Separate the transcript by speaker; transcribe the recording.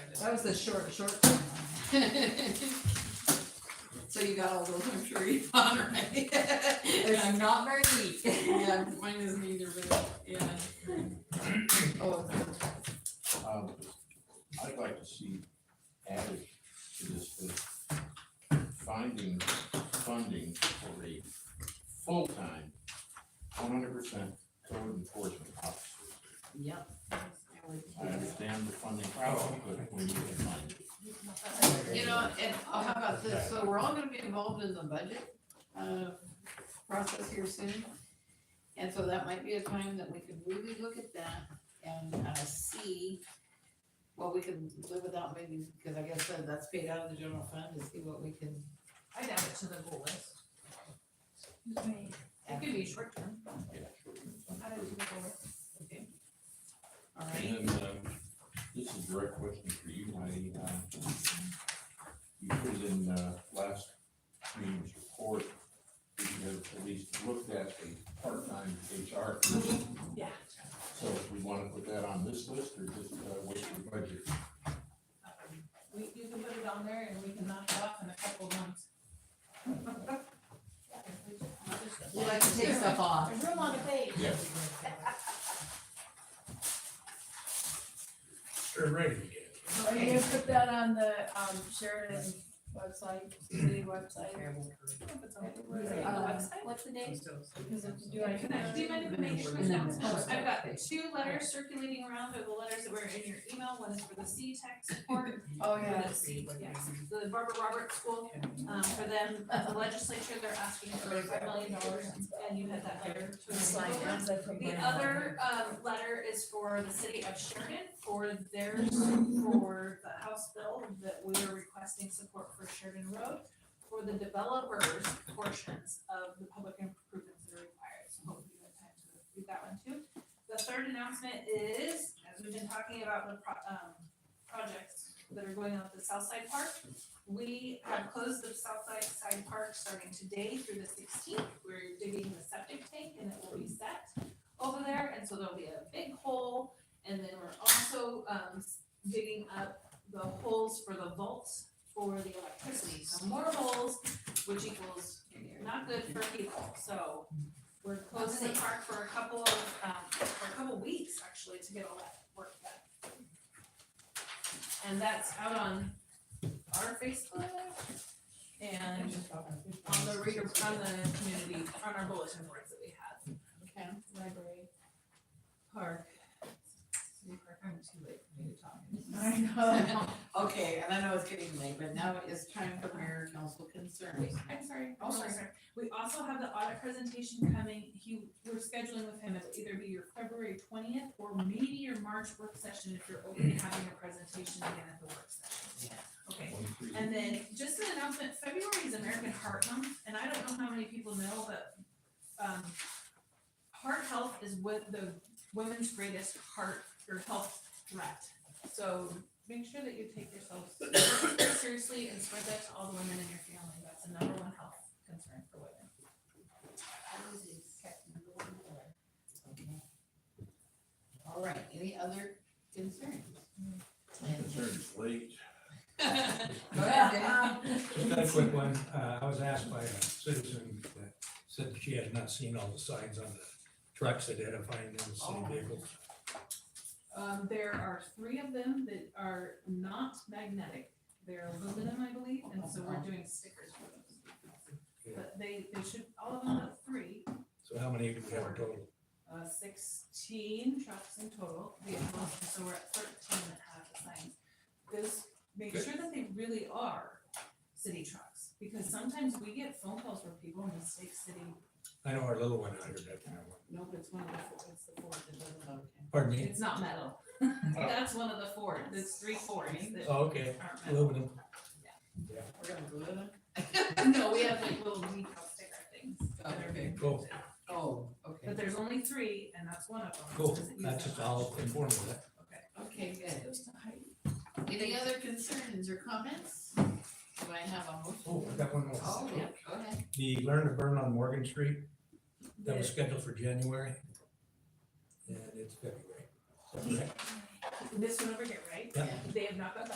Speaker 1: That was the short, short term one.
Speaker 2: So you got all those, I'm sure you found, right?
Speaker 1: It's not very deep.
Speaker 2: Yeah, mine isn't either, but, yeah.
Speaker 1: Oh,
Speaker 3: Um, I'd like to see added to this, the finding funding for a full-time, one hundred percent code enforcement officer.
Speaker 2: Yep.
Speaker 3: I understand the funding problem, but we need to find it.
Speaker 2: You know, and oh, how about this, so we're all gonna be involved in the budget, uh, process here soon. And so that might be a time that we could really look at that and, uh, see what we can live without maybe, because I guess that- that's paid out of the general fund, to see what we can.
Speaker 4: I'd add it to the goal list. It could be short term.
Speaker 3: Yeah, sure.
Speaker 4: Add it to the goal list.
Speaker 2: All right,
Speaker 3: And then, um, this is a direct question for you, Heidi. Uh, You put in, uh, last meeting's report, that you have at least looked at a part-time HR person.
Speaker 4: Yeah.
Speaker 3: So if we wanna put that on this list or just, uh, wait for budget?
Speaker 4: Um, We, you can put it on there and we can knock it off in a couple of months.
Speaker 1: we like to take stuff off.
Speaker 4: There's room on the page.
Speaker 3: Yeah.
Speaker 5: Sure, ready to get.
Speaker 6: Are you gonna put that on the, um, Sheridan website, city website?
Speaker 4: Uh, it on the website?
Speaker 6: What's the date? Because if you do it.
Speaker 4: Can I do my information
Speaker 1: And then-
Speaker 4: response? I've got two letters circulating around, they're the letters that were in your email, one is for the C tech support.
Speaker 6: Oh,
Speaker 4: for
Speaker 6: yeah.
Speaker 4: the C- yes, The Barbara Roberts School, um, for them, the legislature, they're asking for five million dollars, and you had that letter to.
Speaker 6: Slide down.
Speaker 4: The other, um, letter is for the city of Sheridan, for theirs, for the House bill that we are requesting support for Sheridan Road for the developers' portions of the public improvements that are required, so hopefully you have time to read that one too. The third announcement is, as we've been talking about the pro- um, projects that are going on at the South Side Park, we have closed the South Side Side Park starting today through the sixteenth, we're digging the septic tank and it will be set over there, and so there'll be a big hole. And then we're also, um, digging up the holes for the vaults for the electricity, so more holes, which equals not good for people, so. We're closing the park for a couple of, um, for a couple of weeks, actually, to get all that work done. And that's out on our Facebook and on the reader, on the community, on our bulletin boards that we have
Speaker 2: okay,
Speaker 4: library, park, city park, I'm too late for me to talk.
Speaker 2: I know, okay, and I know it's getting late, but now it's time for mayor and council concerns.
Speaker 4: I'm sorry,
Speaker 2: Oh,
Speaker 4: I'm sorry,
Speaker 2: sorry.
Speaker 4: sorry. We also have the audit presentation coming, he, we're scheduling with him, it'll either be your February twentieth or maybe your March work session if you're open to having a presentation again at the work session. Yeah. Okay,
Speaker 3: One, three.
Speaker 4: and then just an announcement, February is American Heart Month, and I don't know how many people know, but um heart health is what the women's greatest heart or health threat. So make sure that you take yourself seriously and spread that to all the women in your family. That's the number one health concern for women.
Speaker 2: Okay. All right, any other concerns?
Speaker 3: Concerns late.
Speaker 1: Go ahead, Dave.
Speaker 5: Got a quick one. Uh, I was asked by a citizen that said she had not seen all the signs on the trucks identifying them as city vehicles.
Speaker 4: Um, there are three of them that are not magnetic. They're aluminum, I believe, and so we're doing stickers for those. But they, they should, all of them have three,
Speaker 5: So how many do we have total?
Speaker 4: uh, sixteen trucks in total, vehicles, and so we're at thirteen that have the signs. This, make
Speaker 5: Good.
Speaker 4: sure that they really are city trucks, because sometimes we get phone calls where people mistake city,
Speaker 5: I know our little one out here that kind of one.
Speaker 2: No, but it's one of the, four- it's the four that doesn't, okay.
Speaker 5: Pardon me?
Speaker 4: it's not metal. That's one of the four, there's three Fords that
Speaker 5: Oh, okay.
Speaker 4: aren't metal.
Speaker 5: Aluminum.
Speaker 2: We're gonna glue them?
Speaker 4: No, we have like little decal sticker things that are big.
Speaker 5: Cool.
Speaker 2: Oh, okay,
Speaker 4: But there's only three and that's one of them.
Speaker 5: Cool.
Speaker 4: Doesn't use
Speaker 5: That's
Speaker 4: that
Speaker 5: just
Speaker 4: much.
Speaker 5: all informative.
Speaker 2: okay, good. Any other concerns or comments? Do I have a motion?
Speaker 5: Oh, I got one more.
Speaker 2: Oh, yeah, go ahead.
Speaker 5: The Learn to Burn on Morgan Street, that was scheduled for January. And it's February.
Speaker 4: This one over here, right?
Speaker 5: Yeah.
Speaker 4: They have not got